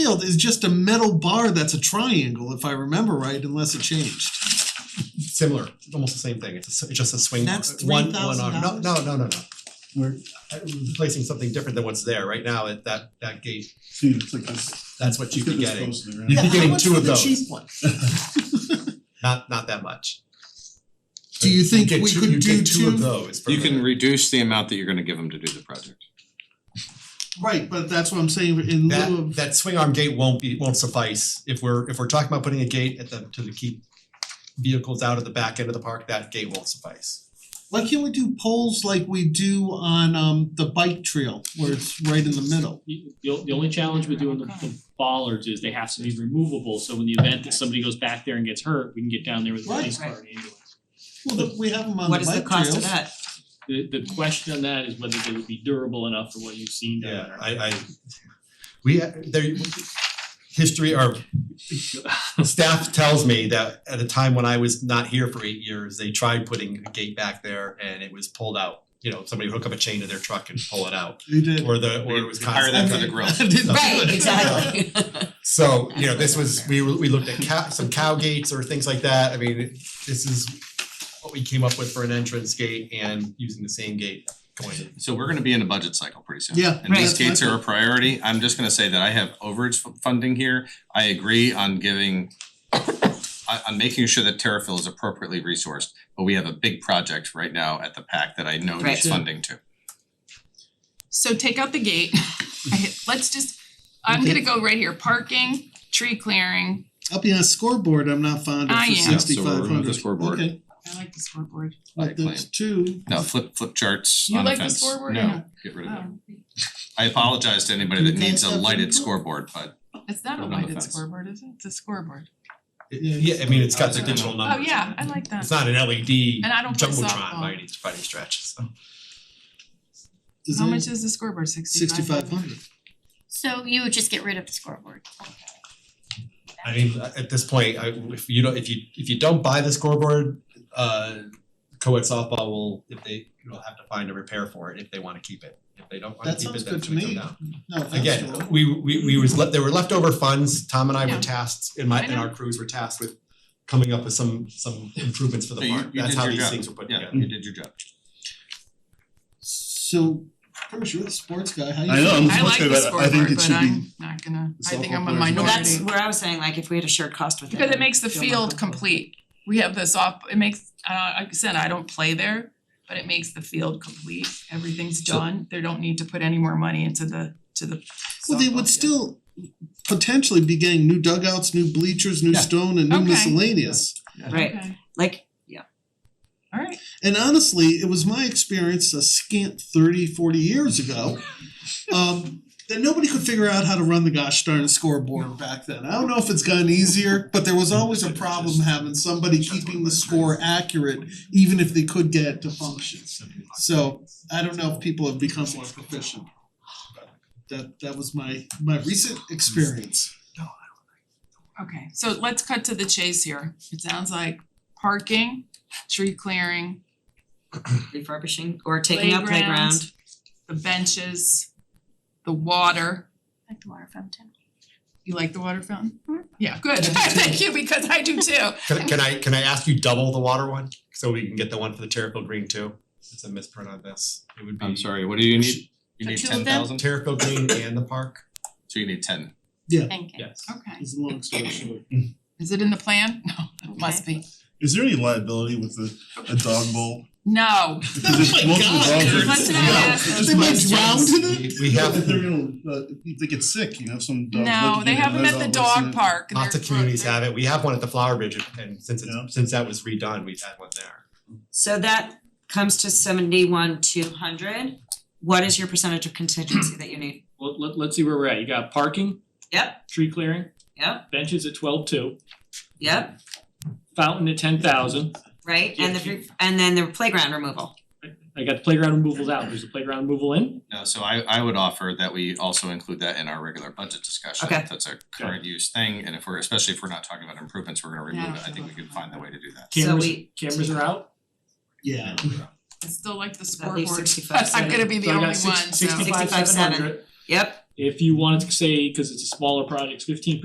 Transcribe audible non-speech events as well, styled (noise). field is just a metal bar that's a triangle, if I remember right, unless it changed. similar, almost the same thing, it's a s- it's just a swing, uh, That's one, one arm, no, $3,000? no, no, no, no. We're uh, replacing something different than what's there, right now, at that that gate, See, it's like this. that's what you'd be Get this getting, close (laughs) to there, You'd right? be getting two of Yeah, how much those, for the cheap one? not not that much. Do you think get we two- could you get do two of two- those for You can the- reduce the amount that you're gonna give them to do the project. Right, but that's what I'm saying, in lieu That of, that swing arm gate won't be, won't suffice, if we're, if we're talking about putting a gate at the, to the keep vehicles out of the back end of the park, that gate won't suffice. why can't we do poles like we do on um the bike trail, where it's right in the middle? The the the only challenge with doing the the bollards is they have to be removable, so in the event that somebody goes back there and gets hurt, we can get down there with a Right. police car and ambulance. Well, the- we have them on the What bike is trails. the cost of that? The the question on that is whether they would be durable enough for what you've seen down Yeah, there. I I, we, there, history or staff tells me that at a time when I was not here for eight years, they tried putting a gate back there and it was pulled out. You know, somebody would hook up a chain to their truck and pull it out, You did. or the, or it was Hire constantly. them for the (laughs) grill. I didn't do Right, it. (laughs) exactly. So, you know, this was, we were- we looked at cow, some cow gates or things like that, I mean, this is what we came up with for an entrance gate and using the same gate going in. So we're gonna be in a budget cycle pretty soon. Yeah, And these right. gates are a priority. I'm just gonna say that I have overage f- funding here. I agree on giving (coughs) on on making sure that TerraFill is appropriately resourced, but we have a big project right now at the PAC that I know Right. needs funding to. So take out the gate, (laughs) I hit- let's just, I'm gonna go right here, parking, tree clearing, I'll be on a scoreboard, I'm not fond of I for am. Yeah, sixty so five we'll hundred. remove the scoreboard. Okay, I like the scoreboard. but claim. there's two. No, flip flip charts You on a like the fence. scoreboard or No, no? get rid of it. Oh, I apologize to anybody Do that you guys needs a have lighted input? scoreboard, but it's not Put it a on the lighted fence. scoreboard, is it? It's a scoreboard. Yeah, I mean, it's got the Oh, digital numbers. Oh, yeah, I like Um, It's that. not an E LED And I don't play jumbotron by softball. any, by any stretch, so. Is How it much is the scoreboard? Sixty-five? sixty five hundred? So you would just get rid of the scoreboard. I mean, uh, at this point, I, if you don't, if you, if you don't buy the scoreboard, uh, co-ed softball will, if they, will have to find a repair for it if they wanna keep it. If they don't wanna That keep sounds it, then good it's to gonna come me. down. No, that's Again, we, we, we was, le- there were leftover funds, Tom and I Yeah. were tasked, and my, I and our crews were tasked with coming up with some, some improvements for So the you- park. you That's did how your these job. things were put together. yeah, you did your job. So, Bruce, you're the sports guy, how you? I know, I'm I like supposed the to, but I think scoreboard, it but should be, I'm not gonna, I think I'm a softball players. minority. Well, Well, that's where I was saying, like, if we had a shared cost with it. Because I it makes the feel more field comfortable. complete. We have this off, it makes, uh, like I said, I don't play there, but it makes the field complete. Everything's So- done. They don't need to put any more money into the, to the Well, they softball field. would still potentially be getting new dugouts, new bleachers, new Yeah. stone and new Okay. miscellaneous. Right, Okay, like, alright. And honestly, it was my experience a scant 30, 40 years ago. Um that nobody could figure out how to run the gosh darn scoreboard back then. I don't know if it's gotten easier, but there was always a problem having somebody keeping the score accurate, even if they could get it to function. So I don't know if people have become more proficient. That that was my my recent experience. Okay, so let's cut to the chase here. It sounds like parking, tree clearing, refurbishing or taking out playground. playground, the benches, the water. Like the water fountain. You like the water fountain? Mhm. Yeah, good. (laughs) Thank you, because I do too. (laughs) Can can I can I ask you double the water one, so we can get the one for the Terrafield Green too? It's a misprint on this, it would be. I'm sorry, what do you need? You For need two of them? ten thousand? Terrafield Green and the park, So you need ten. Thank you. yes. Okay, It's a long story short. is it in the plan? No, it must be. is there any liability with the, a dog bowl? No, Because Oh my most of the God, dogs are- Kurt. Let's not Yeah, ask it's those just They my- might drown in it. We we If have, they're gonna, uh, if they get sick, you have some dogs. no, they have them at the dog park. and lots they're of communities broke. have it, we have one at the Flower Bridge, and since Yeah. it's, since that was redone, we've had one there. So that comes to seventy-one, two hundred. What is your percentage of contingency that you need? Let let let's see where we're at, you got parking, Yep, tree clearing, yep, benches at twelve two, yep, fountain at ten thousand. right? And the, re- and then the playground removal. I got the playground removals out, there's a playground removal in, No, so I I would offer that we also include that in our regular budget discussion. Okay. If That's a current use thing, and if we're, especially if we're not talking about improvements, we're gonna remove Yeah. it, I think we can find the way to do that. So cameras we- cameras are out. Yeah. I still like the At least scoreboard. 65 (laughs) I'm gonna be the only one, So so. I got six sixty five seven hundred. Yep, If you wanted to say, cause it's a smaller project, fifteen